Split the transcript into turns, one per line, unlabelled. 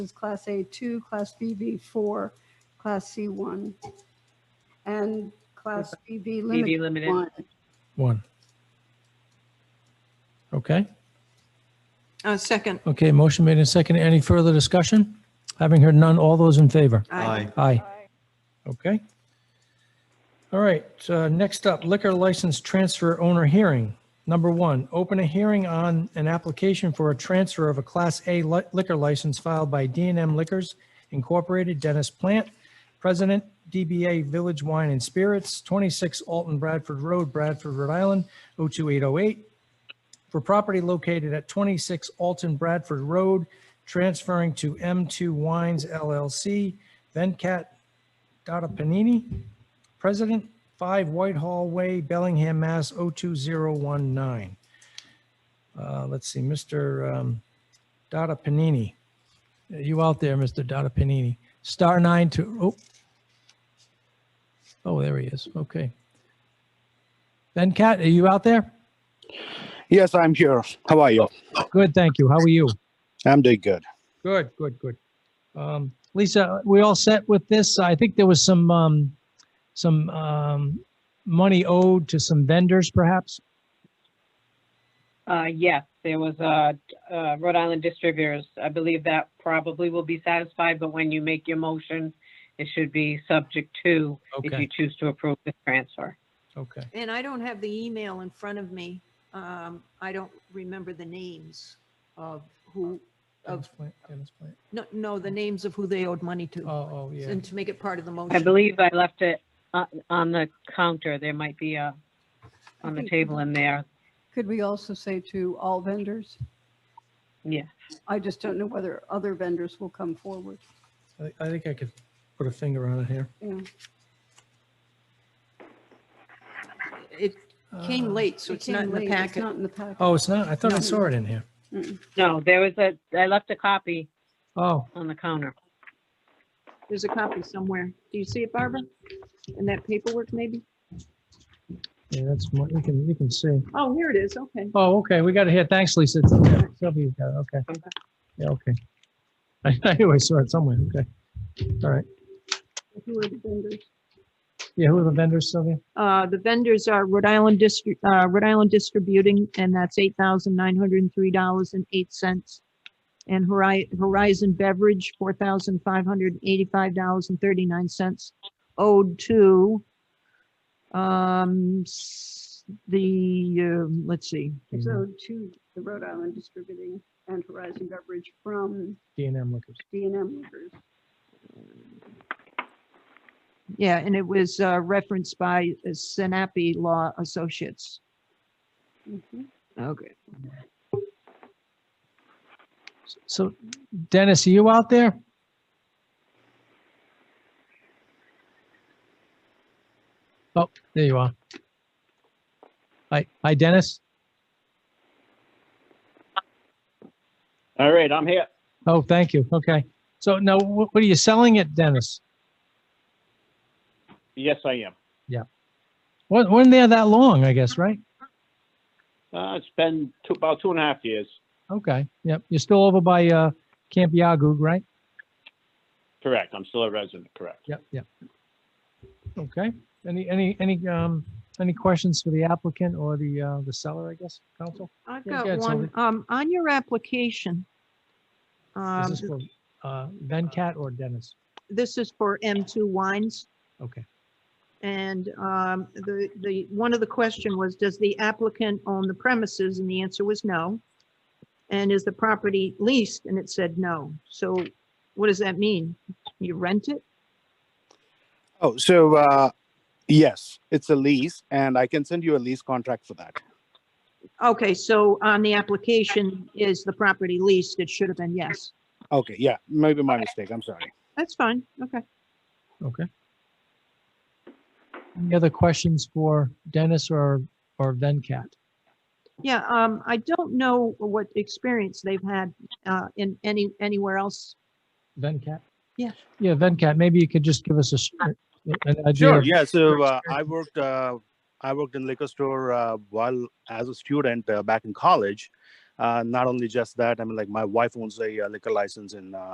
is Class A2, Class BV 4, Class C1, and Class BV
BB
Limited
Limited.
1.
One. Okay,
Uh, second.
okay, motion made and seconded. Any further discussion? Having heard none, all those in favor?
Aye.
Aye. Okay. All right, uh, next up, liquor license transfer owner hearing. Number one, open a hearing on an application for a transfer of a Class A li- liquor license filed by d and M Liquors Incorporated, Dennis Plant, President, DBA Village Wine and Spirits, 26 Alton Bradford Road, Bradford, Rhode Island, 02808, for property located at 26 Alton Bradford Road, transferring to M2 Wines LLC, Venkat Dada Panini, President, 5 Whitehall Way, Bellingham, Mass. 02019. Uh, Let's see, Mr. um, Dada Panini. Are You out there, Mr. Dada Panini. Star nine to, oh. Oh, there he is. Okay. Venkat, are you out there?
Yes, I'm here. How are you?
Good, thank you. How are you?
I'm doing good.
Good, good, good. Um, Lisa, we all set with this? I think there was some, um, some, um, money owed to some vendors perhaps?
Uh, yes, there was, uh, uh, Rhode Island distributors. I believe that probably will be satisfied, but when you make your motion, it should be subject to if you
Okay,
choose to approve the transfer.
okay.
And I don't have the email in front of me. Um, I don't remember the names of who,
Dennis
of,
Plant, Dennis Plant.
no, no, the names of who they owed money to.
Oh, oh, yeah.
And to make it part of the
I
motion.
believe I left it uh, on the counter. There might be a, on the table in there.
Could we also say to all vendors?
Yeah.
I just don't know whether other vendors will come forward.
I, thi- I think I could put a finger on it here.
Yeah.
It came
Uh,
late, so it's
It
not
came
in the
late. It's
packet.
not in the packet.
Oh, it's not? I thought I
No.
saw it in here.
No, there was a, I left a copy
Oh,
on the counter.
There's a copy somewhere. Do you see it, Barbara? In that paperwork, maybe?
yeah, that's, mo- you can, you can see.
Oh, here it is. Okay.
Oh, okay, we got it here. Thanks, Lisa. It's in there. Sylvia, you got it. Okay.
Okay.
Yeah, okay. I I knew I saw it somewhere. Okay. All right.
Who are the vendors?
Yeah, who are the vendors, Sylvia?
Uh, the vendors are Rhode Island District, uh, Rhode Island Distributing, and that's eight thousand nine hundred and three dollars and eight cents. And Hori- Horizon Beverage, four thousand five hundred eighty-five dollars and thirty-nine cents owed to um, s- the, um, let's see,
It's owed to the Rhode Island Distributing and Horizon Beverage from
D and M Liquors.
d and M Liquors.
yeah, and it was, uh, referenced by uh, Sinapi Law Associates.
Mhm.
Okay.
So Dennis, are you out there? Oh, there you are. Hi, hi Dennis.
All right, I'm here.
Oh, thank you. Okay. So now wh- what are you selling it, Dennis?
Yes, I am.
Wa- Wasn't there that long, I guess, right?
Uh, it's been two, about two and a half years.
Okay. Yep. You're still over by uh, Camp Yagug, right?
Correct. I'm still a resident. Correct.
Yep, yep. Okay. Any, any, any, um, any questions for the applicant or the, uh, the seller, I guess, counsel?
I've
Yeah, go
got
ahead,
one,
Sylvia.
um, on your application.
Is
Um,
this for uh, Venkat or Dennis?
this is for M2 Wines.
Okay.
And um, the, the, one of the question was, does the applicant own the premises? And the answer was no. And is the property leased? And it said no. So what does that mean? You rent it?
Oh, so uh, yes, it's a lease, and I can send you a lease contract for that.
Okay, so on the application, is the property leased? It should have been yes.
Okay, yeah, maybe my mistake. I'm sorry.
That's fine. Okay.
Okay. Any other questions for Dennis or, or Venkat?
Yeah, um, I don't know what experience they've had uh, in any, anywhere else.
Venkat?
Yeah.
Yeah, Venkat, maybe you could just give us a, s- an idea.
Sure.
of-
Yeah. So uh, I worked. Uh, I worked in liquor store uh, while as a student uh, back in college. Uh, not only just that, I mean, like my wife owns a uh, liquor license in uh,